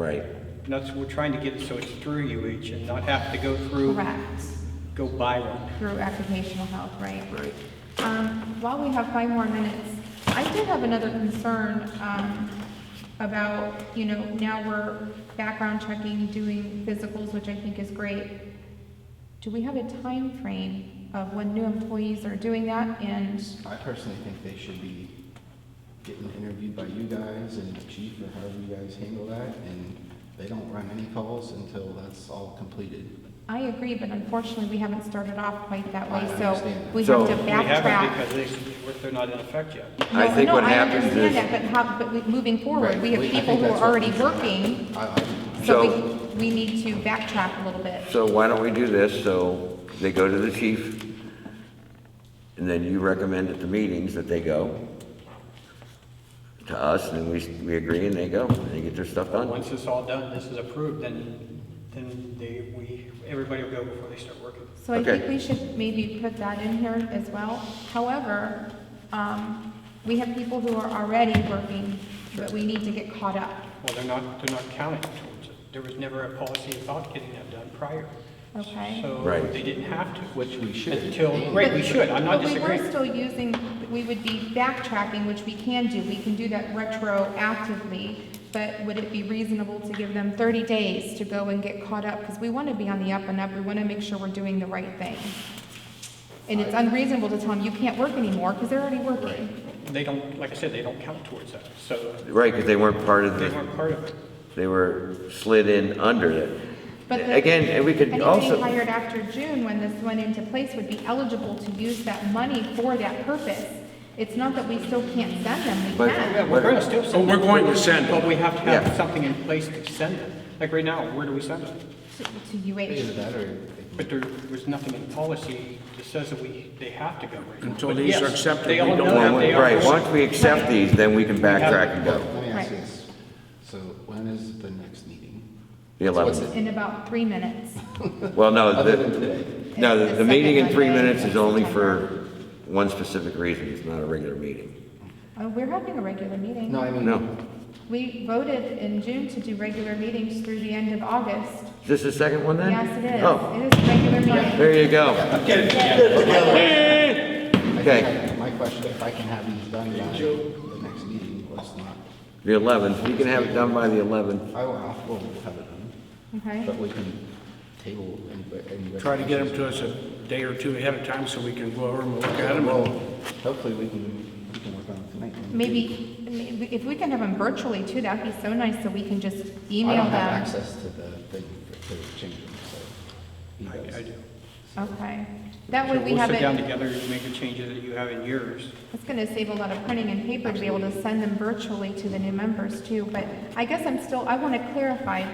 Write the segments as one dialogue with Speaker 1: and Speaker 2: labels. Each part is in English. Speaker 1: Right.
Speaker 2: And that's, we're trying to get it so it's through UH and not have to go through,
Speaker 3: Correct,
Speaker 2: go buy one.
Speaker 3: through occupational health, right?
Speaker 1: Right.
Speaker 3: Um, While we have five more minutes, I did have another concern um, about, you know, now we're background checking, doing physicals, which I think is great. Do we have a time frame of when new employees are doing that? And,
Speaker 4: I personally think they should be getting interviewed by you guys and the chief or however you guys handle that, and they don't run any calls until that's all completed.
Speaker 3: I agree, but unfortunately, we haven't started off quite that way,
Speaker 4: I
Speaker 3: so
Speaker 4: understand.
Speaker 3: we have to
Speaker 1: So-
Speaker 3: backtrack.
Speaker 2: We haven't because they, they're not in effect yet.
Speaker 1: I
Speaker 3: No,
Speaker 1: think
Speaker 3: no,
Speaker 1: what
Speaker 3: I
Speaker 1: happens
Speaker 3: understand
Speaker 1: is-
Speaker 3: that, But how, but we- moving forward,
Speaker 4: Right,
Speaker 3: we have
Speaker 4: we- I
Speaker 3: people
Speaker 4: think
Speaker 3: who are
Speaker 4: that's what
Speaker 3: already
Speaker 4: we should-
Speaker 3: working,
Speaker 4: I, I,
Speaker 3: so we, we need to backtrack a little bit.
Speaker 1: So why don't we do this, so they go to the chief, and then you recommend at the meetings that they go to us, and then we, we agree, and they go, and they get their stuff done.
Speaker 2: Once it's all done, this is approved, then, then they, we, everybody will go before they start working.
Speaker 3: So I think
Speaker 1: Okay.
Speaker 3: we should maybe put that in here as well. However, um, we have people who are already working, but we need to get caught up.
Speaker 2: Well, they're not, they're not counting towards it. There was never a policy about getting that done prior.
Speaker 3: Okay.
Speaker 2: So
Speaker 1: Right.
Speaker 2: they didn't have to.
Speaker 4: which we should.
Speaker 2: Until, right, we
Speaker 3: But-
Speaker 2: should, I'm not
Speaker 3: But we were
Speaker 2: disagreeing.
Speaker 3: still using, we would be backtracking, which we can do, we can do that retroactively, but would it be reasonable to give them 30 days to go and get caught up? Because we want to be on the up and up, we want to make sure we're doing the right thing. And it's unreasonable to tell them, you can't work anymore, because they're already working.
Speaker 2: They don't, like I said, they don't count towards that, so
Speaker 1: Right, because they weren't part of
Speaker 2: they
Speaker 1: the,
Speaker 2: weren't part of it.
Speaker 1: they were slid in under it.
Speaker 3: But the-
Speaker 1: Again, and we could also.
Speaker 3: Anybody hired after June, when this went into place, would be eligible to use that money for that purpose. It's not that we still can't send them, we
Speaker 1: But-
Speaker 3: can.
Speaker 2: Yeah, we're gonna still send
Speaker 5: But
Speaker 2: them.
Speaker 5: we're going to send them.
Speaker 2: But we have to
Speaker 1: Yeah.
Speaker 2: have something in place to send them. Like right now, where do we send them?
Speaker 3: to to
Speaker 4: Either
Speaker 3: UH.
Speaker 4: that or.
Speaker 2: But there was nothing in policy that says that we, they have to go right now.
Speaker 5: Until
Speaker 2: But
Speaker 5: these are
Speaker 2: yes,
Speaker 5: accepted,
Speaker 2: They
Speaker 5: we
Speaker 2: all
Speaker 5: don't
Speaker 2: know that
Speaker 5: want-
Speaker 2: they are.
Speaker 1: Right, once we accept these, then we can backtrack and go.
Speaker 4: Let me ask you
Speaker 3: Right.
Speaker 4: this, so when is the next meeting?
Speaker 1: The
Speaker 4: What's
Speaker 1: 11th.
Speaker 3: in about three minutes.
Speaker 1: Well, no,
Speaker 4: Other than
Speaker 1: the,
Speaker 4: today?
Speaker 1: no, the- the
Speaker 3: The
Speaker 1: meeting in
Speaker 3: second
Speaker 1: three
Speaker 3: Monday
Speaker 1: minutes
Speaker 3: of
Speaker 1: is only
Speaker 3: September.
Speaker 1: for one specific reason, it's not a regular meeting.
Speaker 3: Uh, We're having a regular meeting.
Speaker 4: No, I mean.
Speaker 1: No,
Speaker 3: We voted in June to do regular meetings through the end of August.
Speaker 1: is this the second one then?
Speaker 3: Yes, it is.
Speaker 1: Oh,
Speaker 3: It is regular meeting.
Speaker 1: there you go.
Speaker 4: I
Speaker 1: Okay.
Speaker 4: think I- My question, if I can have these done by the next meeting, let's not,
Speaker 1: The 11th, we can have it done by the 11th.
Speaker 4: I will, I'll, we'll have it done, but
Speaker 3: Okay?
Speaker 4: we can table any, any.
Speaker 5: Try to get them to us a day or two ahead of time so we can go over them and look at them.
Speaker 4: Well, hopefully we can, we can work on it tonight.
Speaker 3: Maybe, maybe if we can have them virtually too, that'd be so nice, so we can just
Speaker 4: I
Speaker 3: email
Speaker 4: don't have
Speaker 3: them.
Speaker 4: access to the thing for- to change them, so. he does.
Speaker 2: I do.
Speaker 3: Okay. That way
Speaker 2: So
Speaker 3: Oh, we
Speaker 2: we'll
Speaker 3: have
Speaker 2: sit down
Speaker 3: it,
Speaker 2: together and make the changes that you have in yours.
Speaker 3: it's gonna save a lot of printing and paper to be able to send them virtually to the new members too. But I guess I'm still, I wanna clarify,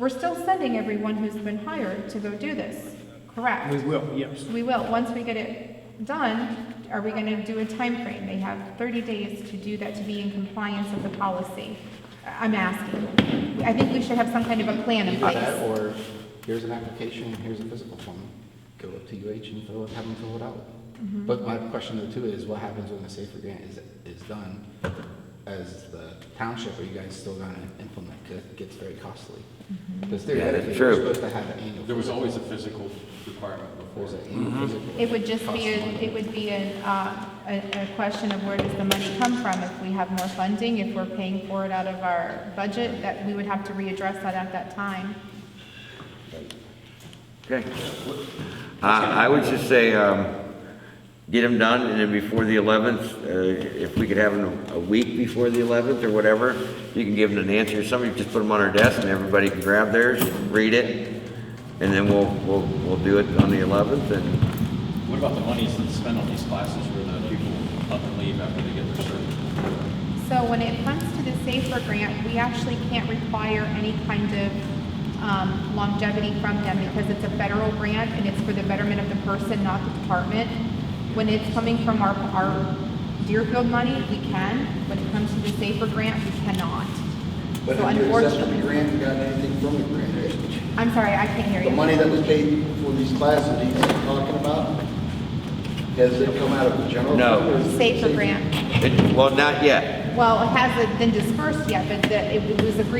Speaker 3: we're still sending everyone who's been hired to go do this, correct?
Speaker 2: We will, yes.
Speaker 3: We will, once we get it done, are we gonna do a time frame? They have thirty days to do that, to be in compliance with the policy. I- I'm asking. I think we should have some kind of a plan in
Speaker 4: Either that,
Speaker 3: place.
Speaker 4: or here's an application, here's a physical form, go up to UH and fill it, have them fill it out.
Speaker 3: Mm-hmm.
Speaker 4: But my question though too is, what happens when the safer grant is, is done? As the township, are you guys still gonna implement, 'Cause it gets very costly?
Speaker 3: Mm-hmm.
Speaker 4: Because theoretically,
Speaker 1: true.
Speaker 4: you're supposed to have an annual.
Speaker 6: There was always a physical requirement before. Mm-hmm.
Speaker 4: There's an annual physical.
Speaker 3: It would just
Speaker 4: Costs
Speaker 3: be, a-
Speaker 4: money.
Speaker 3: it would be an, uh, a, a question of where does the money come from? If we have more funding, if we're paying for it out of our budget, that we would have to readdress that at that time.
Speaker 1: Okay. Uh, I would just say, um, get them done, and then before the 11th, uh, if we could have them a week before the 11th or whatever, you can give them an answer, somebody just put them on our desk, and everybody can grab theirs, read it, and then we'll, we'll, we'll do it on the 11th, and
Speaker 6: What about the monies that's spent on these classes where the people up and leave after they get their cert?
Speaker 3: So when it comes to the SAFER grant, we actually can't require any kind of um, longevity from them because it's a federal grant and it's for the betterment of the person, not the department. When it's coming from our, our Deerfield money, we can. When it comes to the SAFER grant, we cannot.
Speaker 7: But
Speaker 3: So
Speaker 7: have you accepted the
Speaker 3: unfortunately,
Speaker 7: grant and gotten anything from the grant? Have you?
Speaker 3: I'm sorry, I can't hear you.
Speaker 7: The money that was paid for these classes that you're talking about, has it come out of the general?
Speaker 1: No.
Speaker 7: fund or is it
Speaker 3: SAFER
Speaker 7: savings?
Speaker 3: grant.
Speaker 1: it- well, not yet.
Speaker 3: Well, it hasn't been dispersed yet, but the- it was agreed